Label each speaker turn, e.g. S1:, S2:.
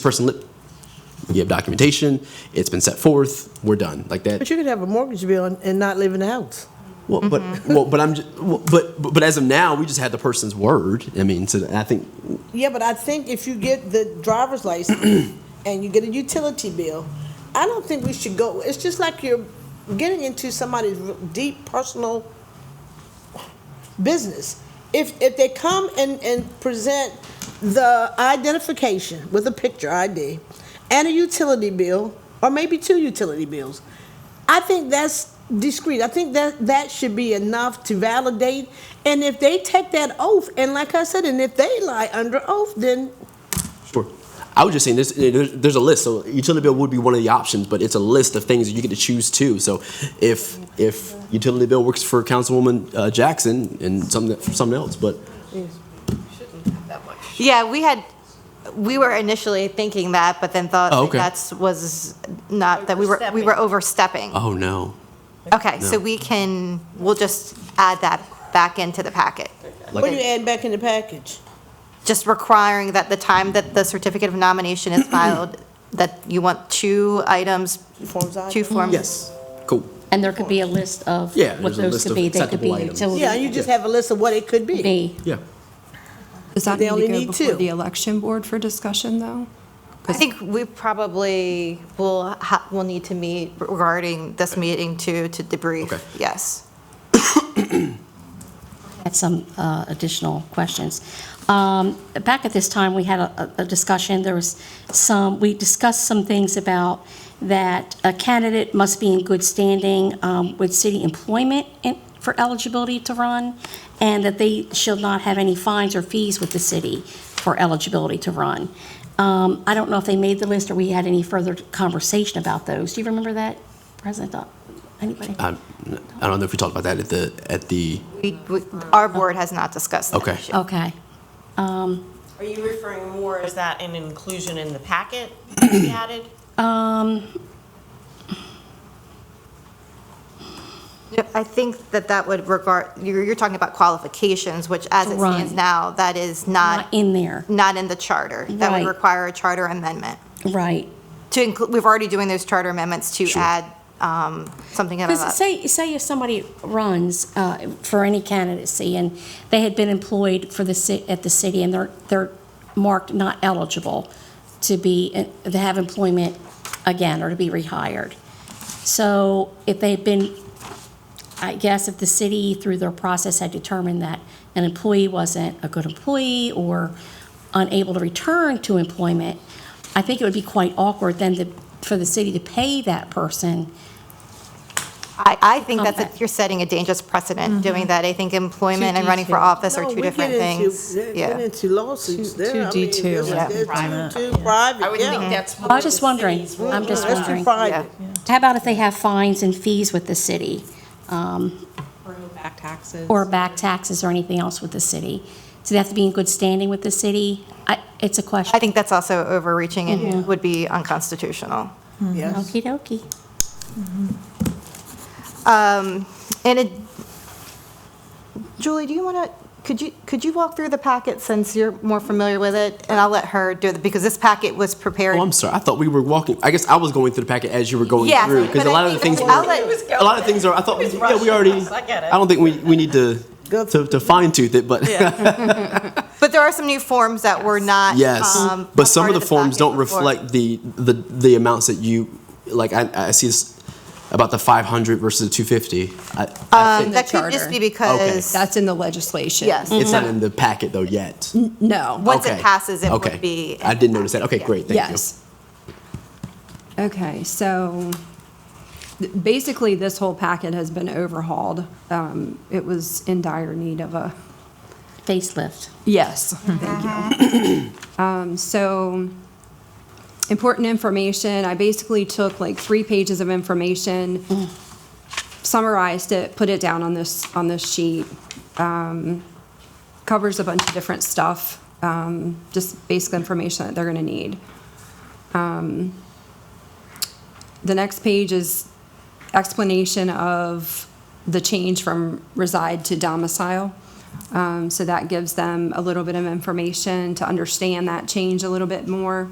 S1: person, li- you have documentation, it's been set forth, we're done, like that.
S2: But you could have a mortgage bill and- and not live in the house.
S1: Well, but, well, but I'm, ju- well, but, but but as of now, we just had the person's word, I mean, so I think,
S2: Yeah, but I think if you get the driver's license and you get a utility bill, I don't think we should go, it's just like you're getting into somebody's r- deep personal business. If, if they come and, and present the identification with a picture ID and a utility bill, or maybe two utility bills, I think that's discreet. I think that, that should be enough to validate. And if they take that oath, and like I said, and if they lie under oath, then
S1: sure. I was just saying, there's, there's, there's a list, so utility bill would be one of the options, but it's a list of things that you get to choose too. So if, if utility bill works for Councilwoman uh, Jackson and something, for something else, but
S3: Yeah, we had, we were initially thinking that, but then thought
S1: Oh,
S3: that
S1: okay.
S3: that's, was not, that we were, we were overstepping.
S1: Oh, no.
S3: Okay, so we can, we'll just add that back into the packet.
S2: what do
S1: Like,
S2: you add back in the package?
S3: Just requiring that the time that the certificate of nomination is filed, that you want two items,
S2: Forms I-
S3: two forms.
S1: yes, cool.
S4: And there could be a list of
S1: Yeah, there's
S4: what
S1: a
S4: those
S1: list
S4: could
S1: of
S4: be. They could be
S1: acceptable items.
S2: Yeah, you
S4: utility
S2: just have a list of what it could be.
S4: B.
S1: Yeah.
S5: Does that
S2: They
S5: need to
S2: only
S5: go
S2: need two.
S5: before the election board for discussion, though?
S3: I think we probably will, ha- will need to meet regarding this meeting too, to debrief,
S1: Okay.
S3: yes.
S4: had some uh, additional questions. Um, Back at this time, we had a- a a discussion, there was some, we discussed some things about that a candidate must be in good standing um, with city employment in- for eligibility to run, and that they should not have any fines or fees with the city for eligibility to run. Um, I don't know if they made the list or we had any further conversation about those. Do you remember that, President? Dodd? Anybody?
S1: I, I don't know if we talked about that at the, at the,
S3: We, we- our board has not discussed that
S1: Okay.
S3: issue.
S4: Okay.
S6: Are you referring more, is that an inclusion in the packet that we added?
S4: Um,
S3: Yeah, I think that that would regard, you're, you're talking about qualifications, which as it stands
S4: Right.
S3: now, that is
S4: Not
S3: not,
S4: in there,
S3: not in the charter. That would
S4: Right.
S3: require a charter amendment.
S4: right.
S3: To include, we've already doing those charter amendments to add um, something about
S4: Because
S3: that.
S4: say, say if somebody runs uh, for any candidacy and they had been employed for the, ci- at the city and they're, they're marked not eligible to be, uh, to have employment again or to be rehired. So if they've been, I guess if the city through their process had determined that an employee wasn't a good employee or unable to return to employment, I think it would be quite awkward then to, for the city to pay that person
S3: I, I think that's, a-
S4: Okay.
S3: you're setting a dangerous
S4: Mm-hmm.
S3: precedent doing that. I think employment and running for
S4: detailed.
S3: office are
S2: No,
S3: two
S2: we get
S3: different
S2: into-
S3: things.
S2: get- Get
S3: Yeah.
S2: into lawsuits
S5: Two-
S2: there. I mean,
S5: 2D2.
S2: there's-
S5: Yeah.
S2: there's Too too private, yeah.
S6: that's.
S4: I was just wondering, I'm just
S2: That's too
S4: wondering.
S2: private.
S4: How about if they have fines and fees with the city,
S5: Back taxes.
S4: or back taxes or anything else with the city? Do they have to be in good standing with the city? I, it's a question.
S3: I think that's also overreaching and would be unconstitutional.
S2: Yes.
S4: Okey dokey.
S3: Um, And it, Julie, do you want to, could you, could you walk through the packet since you're more familiar with it? And I'll let her do it, because this packet was prepared.
S1: Oh, I'm sorry. I thought we were walking. I guess I was going through the packet as you were going
S3: Yeah,
S1: through because
S3: but
S1: a
S3: I
S1: lot of the
S3: think
S1: things.
S3: that's-
S1: were-
S3: I'll let- It
S1: a lot of things are. I thought. We, yeah, we already.
S6: I get it.
S1: don't think we, we need to
S2: Go
S1: to, to fine tooth it, but
S3: But there are some new forms that were not.
S1: yes.
S3: um, a
S1: but some
S3: part
S1: of the, forms
S3: packet
S1: don't
S3: before.
S1: reflect the, the the amounts that you like. I, I see this about the 500 versus the 250. I, I
S3: Um,
S1: think
S3: That could
S5: charter.
S3: just be because,
S5: That's in the legislation.
S3: yes,
S1: it's not in the packet though yet.
S5: No.
S3: Mhm. once it
S1: Okay.
S3: passes, it
S1: Okay.
S3: would be.
S1: I didn't notice that. Okay,
S3: Yeah.
S1: great. Oh, Thank
S5: Yes. Okay, so th- basically, this whole packet has been overhauled. Um, It was in dire need of a,
S4: Facelift.
S5: yes, thank you. Um, So important information, I basically took like three pages of information, summarized it, put it down on this, on this sheet. Um, Covers a bunch of different stuff, um, just basic information that they're gonna need. Um, The next page is explanation of the change from reside to domicile. Um, So that gives them a little bit of information to understand that change a little bit more.